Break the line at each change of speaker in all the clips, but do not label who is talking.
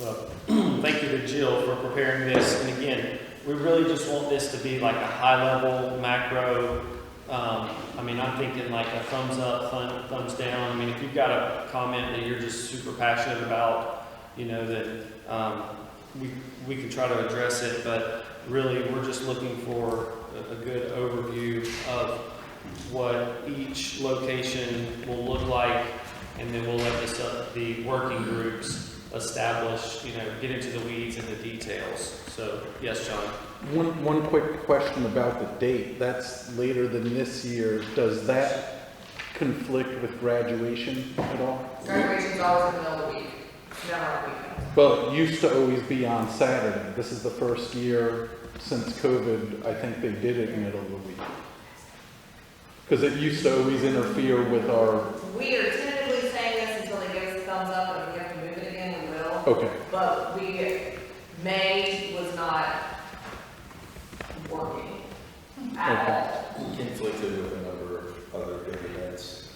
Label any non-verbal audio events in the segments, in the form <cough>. Well, <clears throat> thank you to Jill for preparing this, and again, we really just want this to be like a high-level macro. Um, I mean, I'm thinking like a thumbs up, thumb, thumbs down. I mean, if you've got a comment that you're just super passionate about, you know, that, um, we, we can try to address it, but really, we're just looking for a, a good overview of what each location will look like, and then we'll let this up, the working groups establish, you know, get into the weeds and the details. So, yes, John.
One, one quick question about the date. That's later than this year. Does that conflict with graduation at all?
Graduation's always in the middle of the week, It's never on the weekend.
Well, it used to always be on Saturday. This is the first year since COVID, I think they did it middle of the week. Because it used to always interfere with our,
We are tentatively saying this until they give us a thumbs up, and if we have to move it again, we will.
okay,
But we, May was not working at all.
conflicted with a number of other big events.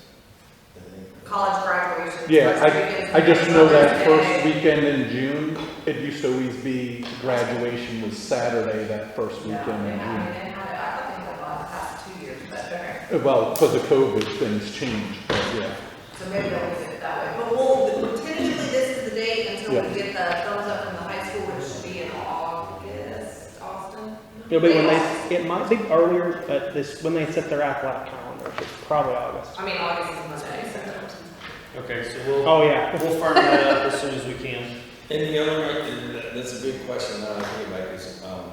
I think.
College graduation.
Yeah, I just know that first weekend in June, it used to always be graduation was Saturday, that first
Yeah,
weekend
they
in June.
haven't, they haven't, I don't think they've lost past two years, but okay.
Well, because of COVID, things changed, but yeah.
So maybe they'll use it that way, but we'll, tentatively, this is the date until
Yeah.
we get the thumbs up from the high school, which should be in August, Austin?
It'll be when they, it might be earlier, but this, when they set their athletic calendar, it's probably August.
I mean, August is Monday, so.
Okay, so we'll,
Oh, yeah.
we'll firm that up as soon as we can.
And the other, and that- that's a big question now, I think, like, is, um,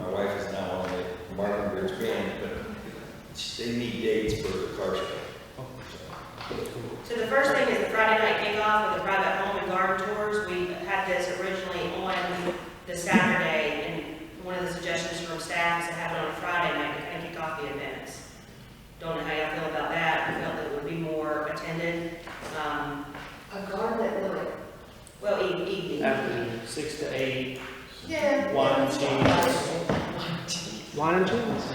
my wife is now on the Martin Bridge Band, but she- they need dates for the car show.
So the first thing is the Friday night kickoff with the private home and garden tours. We had this originally on the Saturday, and one of the suggestions from staff is to have it on a Friday night to kind of kick off the events. Don't know how y'all feel about that, I felt that it would be more attended, um,
A garden at Lily.
well, e- evening.
After six to eight,
Yeah.
Wine change.
Line and chains.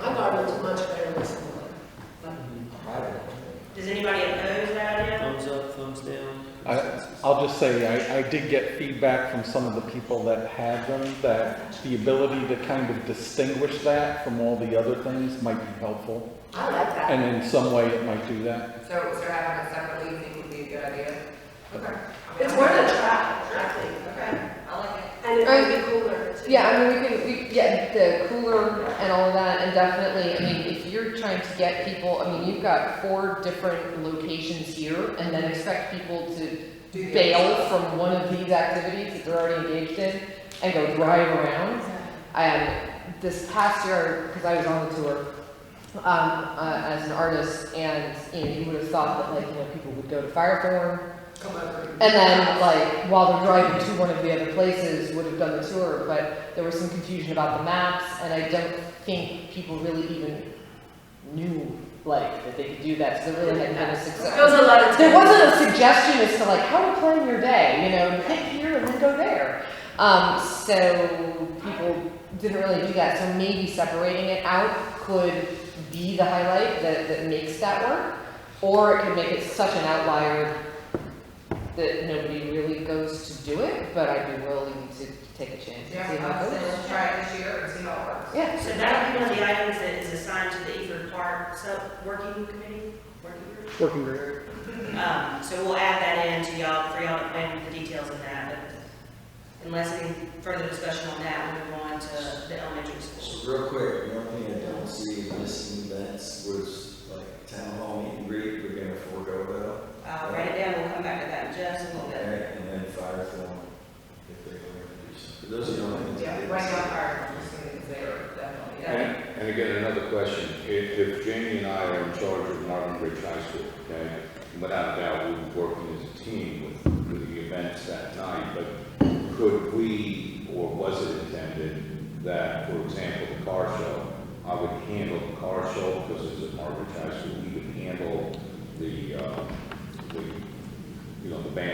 My garden's much better than this one.
I don't
Does anybody oppose that idea?
thumbs up, thumbs down.
I, I'll just say, I, I did get feedback from some of the people that had them, that the ability to kind of distinguish that from all the other things might be helpful,
I like that.
and in some way it might do that.
So, so having a separate evening would be a good idea? Okay. It's worth a try, exactly. Okay, I like it.
And it might be cooler too.
Yeah, I mean, we can, we, yeah, the cooler and all that, and definitely, I mean, if you're trying to get people, I mean, you've got four different locations here, and then expect people to
Do the-
bail from one of these activities that they're already engaged in and go drive around. Um, this past year, because I was on the tour, um, uh, as an artist, and, you know, you would have thought that like, you know, people would go to Firethorn,
Come over.
and then, like, while they're driving to one of the other places, would have done the tour, but there was some confusion about the maps, and I don't think people really even knew, like, that they could do that, so there really hadn't been a
It was
success.
a lot of.
There wasn't a suggestion as to like how to plan your day, you know, hit here and then go there. Um, so people didn't really do that, so maybe separating it out could be the highlight that, that makes that work, or it could make it such an outlier that nobody really goes to do it, but I'd be willing to take a chance and see
Yeah,
how
I'll
it
say
goes.
let's try it this year and see how it works.
Yeah.
So that would be one of the items that is assigned to the Eford Park sub-working committee, working group?
Working group.
Um, so we'll add that in to y'all, for y'all to plan the details of that, but unless any further discussion on that, we'll move on to the elementary school.
So real quick, the only thing I don't see in missing events was like town hall meet and greet, we're gonna forego that.
Uh, write it down, we'll come back to that in just a little
Okay,
bit.
And then fire film, if they're gonna do something. Those are the only things. I
Yeah,
didn't
right
see.
now, our, students there, definitely,
And,
yeah.
and again, another question, if, if Jamie and I are in charge of Marvin Bridge High School, okay, without a doubt, we'll be working as a team with, with the events that night, but could we, or was it intended that, for example, the car show, I would handle the car show, because it's at Marvin Bridge High School, we would handle the, uh, the, you know, the
Um,
band